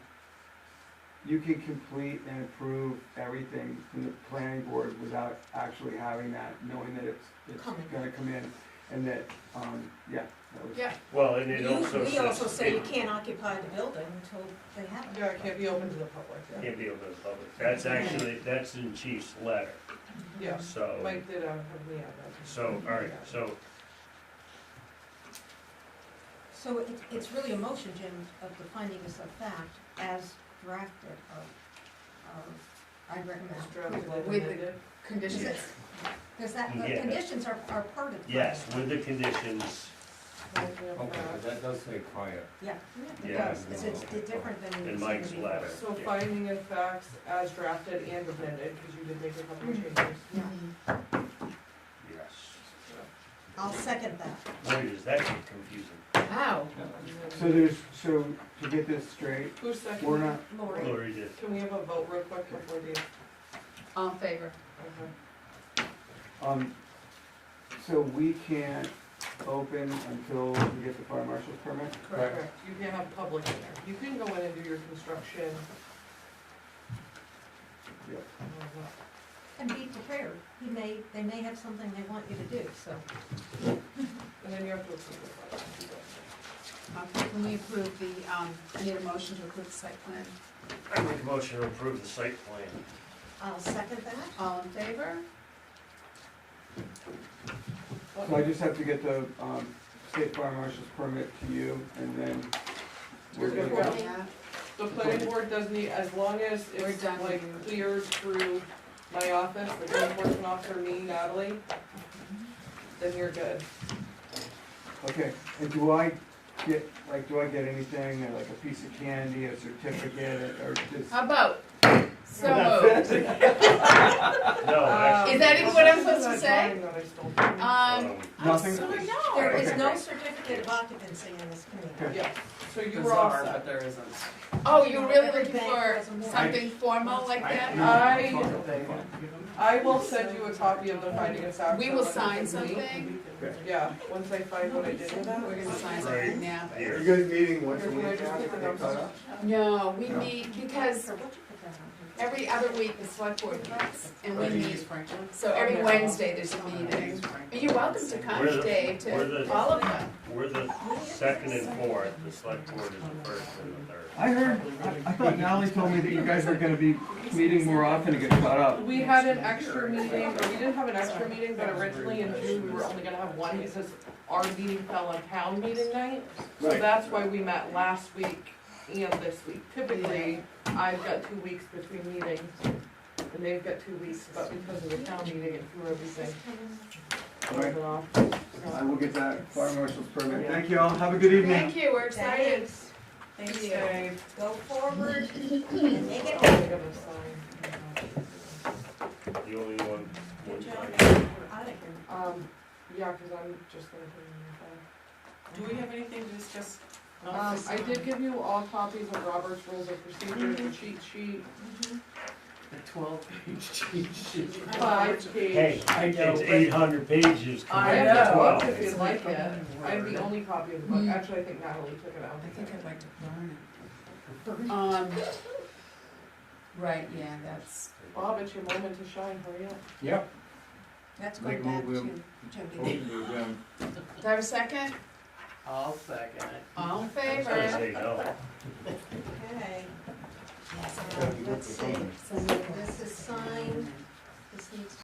you can complete and approve everything from the planning board without actually having that, knowing that it's, it's Coming. gonna come in, and that, um, yeah, that was. Yeah, Well, and it You- also says. We also say you it can't occupy the building until they have it. yeah, it can't be open to the public, yeah. Can't be open to the public. That's actually, that's in chief's letter, Yeah, so, Mike did, uh, have me on that. Oh. so, all right, Yeah. so, So it, it's really a motion, Jim, of the findings of fact as drafted of, of, I recommend. It's drafted and With the- amended. Does Conditions, it- does that, the Yeah. conditions are, are part of the. yes, with the conditions, Right, we have Okay, that. but that does say quiet. Yeah, it Yeah. does, it's, it's different than. in Mike's letter. So yeah. finding and facts as drafted and amended, because you did make a couple of Mm-hmm. changes. Yeah, Yes. I'll second that. Boy, does that get confusing. wow, So there's, so to get this straight, Who's second? we're not, Lori, Lori did. Can we have a vote real quick before the, okay. all in favor? um, so we can't open until we get the fire marshal's permit? Correct, correct. you can have public in there, you can go in and do your construction. Yep. and be prepared, he may, they may have something they want you to do, so. And then you have to approve the findings. Okay, can we approve the, um, I need a motion to approve the site plan. I make a motion to approve the site plan. I'll second that. All in favor? So I just have to get the, um, state fire marshal's permit to you, and then we're You're gonna good. go. Yeah. The planning board does need, as long as We're it's done with you. like cleared through my office, the code enforcement officer, me, Natalie, then you're good. Okay, and do I get, like, do I get anything, uh, like a piece of candy, a certificate, or just? How about, so moved. No, actually. Um, Is that even what I'm supposed to this is say? that drawing that I stole. Um, I'm Nothing? sorry, Oh, no. There is no certificate of occupancy in this community. Yeah, so you were all set. there isn't. Oh, you're really looking Everything for has a warrant. something formal like that? I, I will send you a copy of the finding of fact. Uh, We will that sign was me. something? Yeah, once I find what I did with that. We're gonna sign Right. something now. Here. You guys meeting Or once a can I week? just put the numbers on? No, we No. need, because So what you put that on? every other week the select board meets and we Right. meet. So every Wednesday there's a meeting. But You're welcome to come, We're the- Dave, we're to the- all of them. We're the second and fourth, the select board is the first and the third. I heard, I- I thought Natalie told me that you guys were gonna be meeting more often to get caught up. We had an extra meeting, or we didn't have an extra meeting, but originally in June, we were only gonna have one, because our meeting fell on town meeting night. So Right. that's why we met last week and this week. Typically, I've got two weeks between meetings, and they've got two weeks, but because of the town meeting and through everything, it Right. wasn't off. I will get that fire marshal's permit. Thank you all, have a good evening. Thank you, we're excited. Thanks, Thank you. Okay. go forward and make I'm it gonna Oh, sign. The only one. Good job. one- out of here. Um, yeah, because I'm just gonna put it in your file. Do we have anything to discuss? Um, I did give you all copies of Robert's Rules of Procedure, Mm-hmm. the cheat sheet, The twelve page cheat sheet. five page. Hey, I know, it's but- eight hundred pages I compared to have the twelve. book if you like it. I have the only copy of the book. Mm. Actually, I think Natalie took it out. Mm-hmm. I think I'd like to burn Um, right, yeah, that's, Bob, it's your moment to shine. Hurry up. Yep. That's Make going a back move, Will. to Jody. Motion to adjourn. do I have a second? it. I'll second it. All in I was gonna favor? say no. Okay. Oh. Yeah, you Let's see, look so this is signed,